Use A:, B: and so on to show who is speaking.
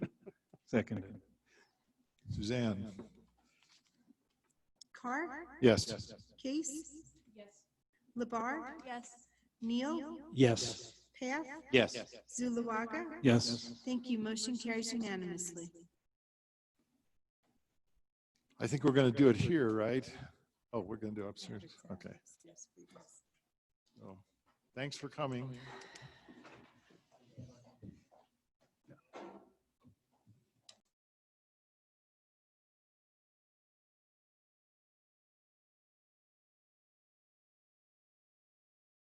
A: Seconded.
B: Suzanne?
C: Carr?
B: Yes.
C: Case? Labar?
D: Yes.
C: Neal?
A: Yes.
C: Path?
B: Yes.
C: Zuluaga?
A: Yes.
C: Thank you. Motion carries unanimously.
B: I think we're going to do it here, right? Oh, we're going to do upstairs. Okay. So, Thanks for Oh, coming.